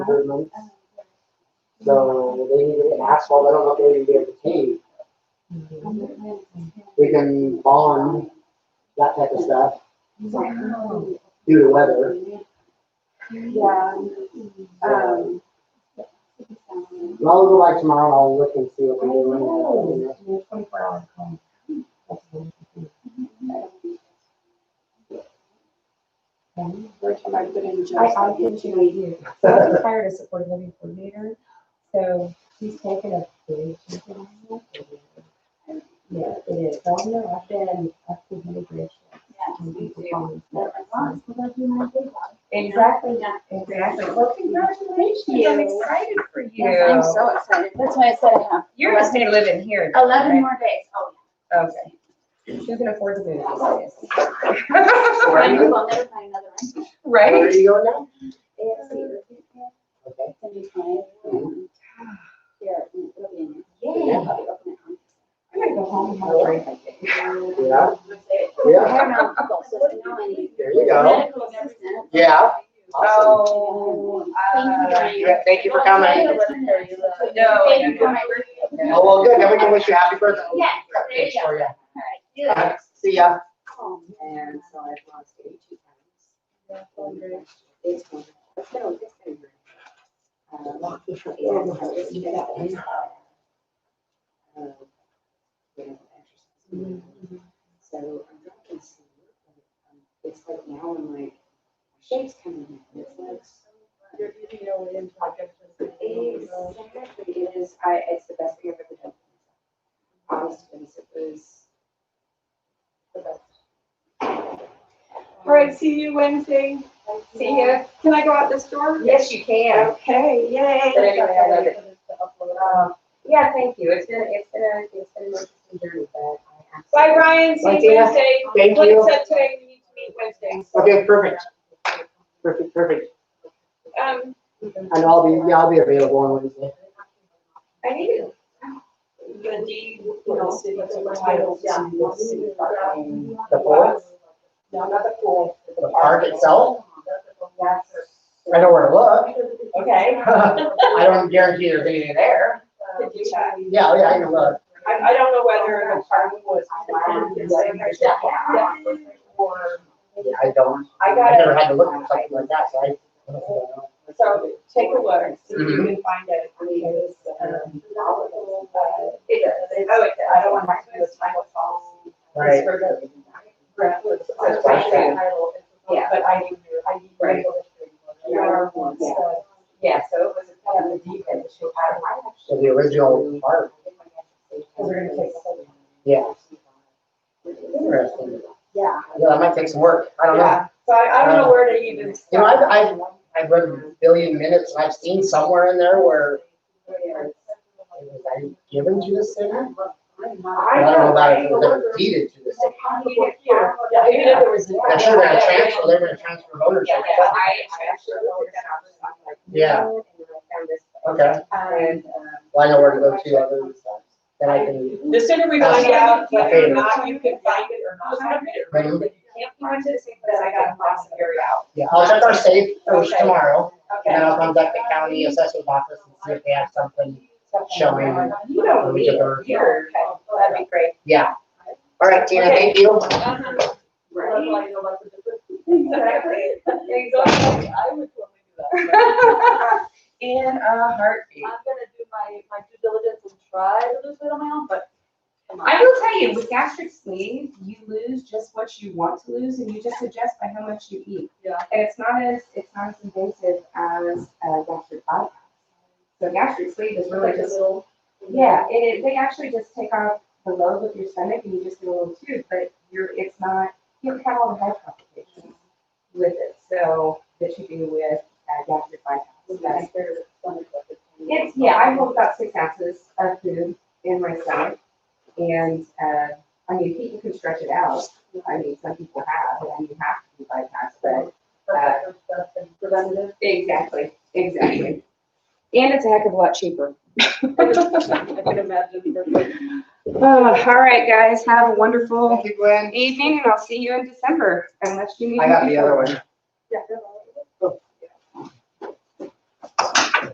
for those months. So they need to get asphalt, I don't know if they're gonna get paid. We can bond, that type of stuff, due to weather. Yeah, um, And I'll go by tomorrow, I'll look and see what we're doing. Twenty-four hour call. where can I put in I, Joe's? I get you idea. So I just hired a supported living coordinator, so he's taken a big. chunk of my work. Yeah, it is. So I know I've been up to hundred grand. Exactly, exactly. Well, congratulations. I'm excited for Yes, I'm you. so excited. That's why I said I have You're gonna stay living here. Jeff, eleven right? more days. Oh, Okay. Who can afford to move? these yeah. I days? knew I'll never find another one. Where are Right? you going now? Okay. It's gonna be fine. Um, Here, it'll be in there. Yeah. I'll be opening it. I'm gonna go home and have a drink, I think. Yeah, I yeah, have my own people, so it's now I need there you go. medical assistant. Yeah. Awesome. Oh, uh, Thank you. Yeah, Thank you for coming. No, Thank you no, for no. my birthday. Oh, well, good, then we can wish you happy birthday. Yeah, Got there you pictures go. for ya. All right, do that. See ya. Oh, And man. so I've lost eighty-two pounds. It's wonderful. It's been a- it's been great. Um, yeah, so it's been a- um, you know, exercise. So I'm not gonna see it, but, um, It's like now I'm like, shape's coming in. It's like, You're eating your way into like everything. exactly, it is, I, it's the best thing I've ever done. Honestly, it was the best. All right, see you Wednesday. See ya. Can I go out this door? Yes, you can. Okay, yay. But anyway, I love it. Uh, Yeah, thank you. It's been, it's been, a- it's been an interesting journey, but I have. Bye, Ryan. See Bye, you Tina. Wednesday. Thank Like you. I said today, we need to meet Wednesday. Okay, perfect. Perfect, perfect. Um, And I'll be, yeah, I'll be available on Wednesday. I need you. The D, you know, city title. Yeah. City park and- The pool, No, not the pool. but the park itself, That's- I know where to look. Okay. I don't guarantee there's anything there. Could you check? Yeah, yeah, I can look. I, I don't know whether the park was. Yeah. Or, Yeah, I don't, I I got never it. had to look at something like that, so I. I don't know. So take a look, and see if you Mhm. can find it. Because, um, all of them, uh, It it, does. they know it, I don't want my, it's my fault. Right. Grant was- That's fine. Yeah, but I need, I need. Right. Your ones, Yeah. so, yeah, so it was kind of a deep end issue. I don't know. So the original park, we're gonna take some. yeah, interesting. Yeah. Yeah, that might take some work, I don't know. Yeah, so I, I don't know where to even. You know, I've, I've, I've read a billion minutes and I've seen somewhere in there where start. it was either given to the city. I I don't know about it, know, but it was deeded to the city. Yeah, even if there was. They're sure they're gonna transfer, they're gonna transfer Yeah, ownership. yeah, I, I actually looked at that. I'm like, Yeah, And then I found this, okay. and, um, Well, I know where to go to, other than stuff. Then I can, The sooner we find out whether or not you can find it or not, find it, or Mhm. if you can't find it, then I got a box of area out. yeah, I'll check our safe first Okay. tomorrow, and then Okay. I'll contact the county assessor's office and see if they have something. Showing. You don't We need took it our- here, okay, well, that'd be great. Yeah. All right, Tina, thank you. Right. Exactly. Exactly. I would totally do that. In a heartbeat. I'm gonna do my, my due diligence and try to lose weight on my own, but come on. I will tell you, with gastric sleeve, you lose just what you want to lose and you just adjust by how much you eat. Yeah. And it's not as, it's not as invasive as uh, gastric bypass. So gastric sleeve is really just, yeah, it, is- they actually just take off the load with your stomach and you just get a little tube, but you're, it's not, you don't have all the health complications with it. So that you do with uh, gastric bypass. That's- It's, yeah, I hold about six ounces of food in my stomach. And, uh, I mean, people can stretch it out. I mean, some people have, and you have to do bypass, but. uh, Exactly, exactly. And it's a heck of a lot cheaper. I can imagine. that's like- All right, guys, have a wonderful Thank you, Gwen. evening and I'll see you in December unless you need. I got the other one. Yeah, good luck.